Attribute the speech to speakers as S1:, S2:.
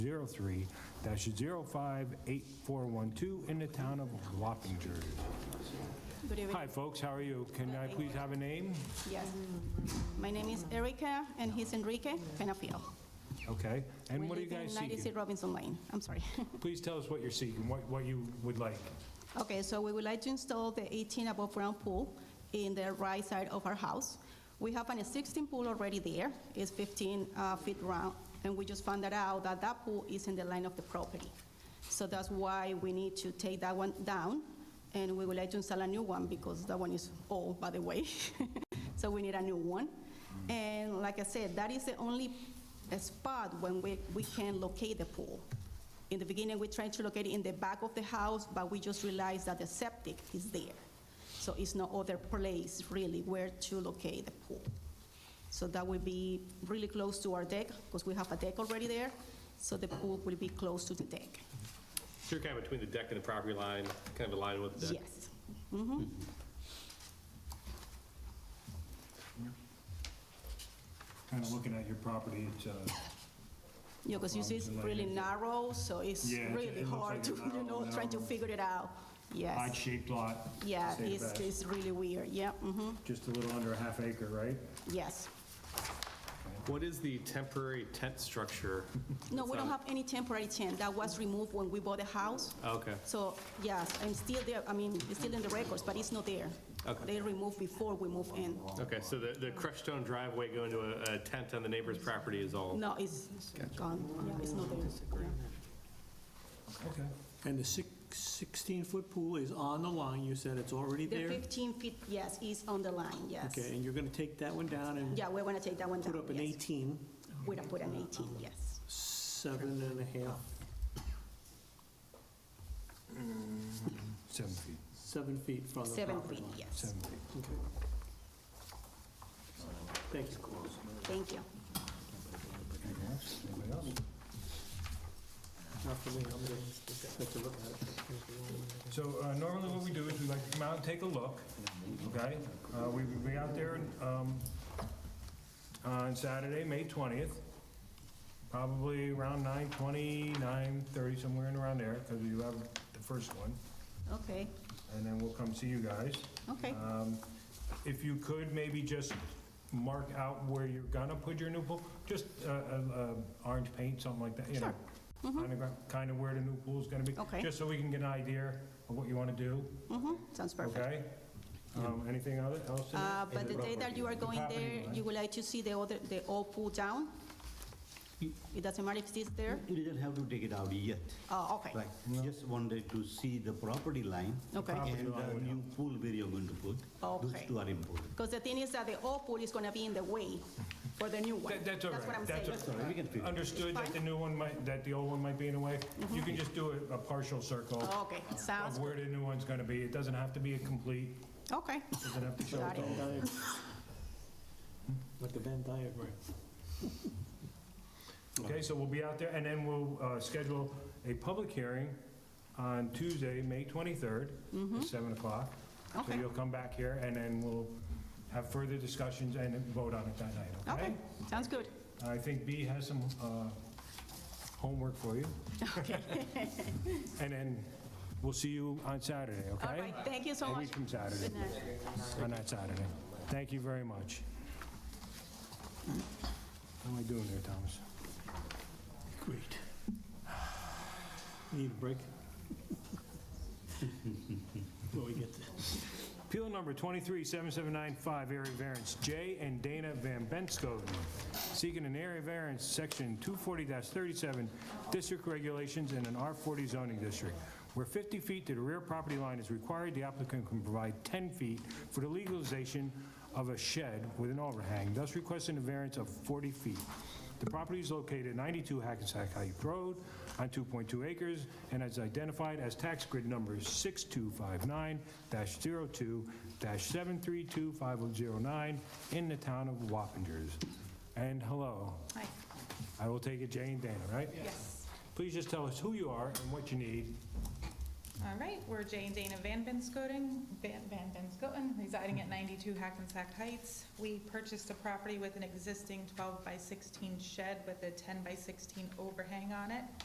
S1: 03-058412 in the town of Wappinger.
S2: Good
S1: Hi,
S2: evening.
S1: folks, how are you? Can I please have a name?
S2: Yes. My name is Erica, and he's Enrique Penafiel.
S1: Okay, and what are you guys
S2: We live in 96
S1: seeking?
S2: Robinson Lane. I'm sorry.
S1: Please tell us what you're seeking, what what you would like.
S2: Okay, so we would like to install the 18 above-ground pool in the right side of our house. We have an existing pool already there. It's 15 uh, feet round, and we just found that out that that pool is in the line of the property. So that's why we need to take that one down, and we would like to install a new one because that one is old, by the way. So we need a new one. And like I said, that is the only spot when we, we can locate the pool. In the beginning, we tried to locate it in the back of the house, but we just realized that the septic is there. So it's no other place really where to locate the pool. So that will be really close to our deck, because we have a deck already there, so the pool will be close to the deck.
S3: So you're kind of between the deck and the property line, kind of aligned with the deck?
S2: Yes.
S1: Kind of looking at your property, it's,
S2: Yeah, because you see it's really narrow, so it's
S1: Yeah, it-
S2: really
S1: it looks
S2: hard
S1: like
S2: to,
S1: a narrow-
S2: you know, trying to
S1: narrow-
S2: figure it out. Yes.
S1: odd-shaped lot.
S2: Yeah,
S1: say the
S2: it's,
S1: best.
S2: it's really weird. Yeah, mhm.
S1: Just a little under a half acre, right?
S2: yes.
S3: What is the temporary tent structure?
S2: No, we don't
S3: That's
S2: have any temporary tent. That was removed when we bought the house.
S3: not- Okay,
S2: So, yes, I'm still there, I mean, it's still in the records, but it's not there.
S3: Okay.
S2: They removed before we moved in.
S3: okay, so the, the crushed stone driveway going to a a tent on the neighbor's property is all?
S2: No, it's gone, Yeah, it's not there.
S1: Okay.
S4: And the six- 16-foot pool is on the line, you said it's already
S2: The
S4: there?
S2: 15 feet, yes, is on the line, yes.
S4: Okay, and you're going to take that one down and
S2: Yeah, we're gonna take that one down.
S4: put up an
S2: yes.
S4: 18,
S2: We're gonna put an 18, yes.
S4: seven and a half,
S1: Seven feet,
S4: seven feet from the
S2: Seven
S4: property
S2: feet,
S4: line.
S2: yes.
S1: seven feet.
S4: Thank you.
S2: Thank you.
S1: Anything else? Anybody else?
S4: Not for me, I'm going to have to look at it.
S1: So uh, normally what we do is we like to come out and take a look, okay? Uh, We will be out there um, on Saturday, May 20th, probably around 9:20, 9:30, somewhere in around there, because you have the first one,
S2: Okay,
S1: and then we'll come see you guys.
S2: okay,
S4: Uh,
S1: Um, If you could, maybe just mark out where you're gonna put your new pool, just uh, uh, uh, orange paint, something like that, you know?
S2: Sure. Mhm.
S1: Kind of where the new pool's gonna be.
S2: Okay.
S1: Just so we can get an idea of what you wanna do,
S2: mhm, sounds perfect.
S1: okay? Um, Anything other- else? to
S2: Uh,
S1: do?
S2: but the day that you are going there, you would like to see the other, the old pool down? It doesn't matter if it's there?
S5: You didn't have to take it out yet.
S2: Oh, okay,
S5: Like, just wanted to see the property line.
S2: Okay. Property
S5: And the new pool where you're going to put. Those
S2: Okay.
S5: two are important.
S2: Because the thing is that the old pool is going to be in the way for the new one.
S1: That- That's all right.
S2: what I'm saying.
S1: all
S5: Sorry, we can figure.
S1: Understood that the new one might, that the old one might be in the way? You can just do a a partial circle
S2: Mm-hmm. Oh, Okay, sounds,
S1: of where the new one's gonna be. It doesn't have to be a complete,
S2: okay,
S1: doesn't have to show
S2: got
S1: it
S2: it.
S1: all.
S4: Like a Venn diagram.
S1: Okay, so we'll be out there, and then we'll uh, schedule a public hearing on Tuesday, May 23rd, at 7 o'clock. So
S2: Mm-hmm. Okay.
S1: you'll come back here, and then we'll have further discussions and vote on it that night, okay?
S2: Okay, sounds good.
S1: I think B has some uh, homework for you. And then we'll see you on Saturday, okay?
S2: All right, thank you so
S1: A
S2: much.
S1: week from Saturday,
S2: Good night.
S1: on that Saturday. Thank you very much. How am I doing there, Thomas?
S4: Great. Need a break? Before we get there.
S1: Appeal number 237795, area variance J and Dana Van Benskoden, seeking an area variance, section 240-37, district regulations in an R40 zoning district. Where 50 feet to the rear property line is required, the applicant can provide 10 feet for the legalization of a shed with an overhang, thus requesting a variance of 40 feet. The property is located at 92 Hackensack Heights Road on 2.2 acres and is identified as tax grid number 6259-02-7325009 in the town of Wappingers. And hello,
S2: Hi.
S1: I will take it Jane Dana, right?
S6: Yes.
S1: Please just tell us who you are and what you need.
S6: All right, we're Jay and Dana Van Benskoten, Van Van Benskoten, residing at 92 Hackensack Heights. We purchased a property with an existing 12 by 16 shed with a 10 by 16 overhang on it.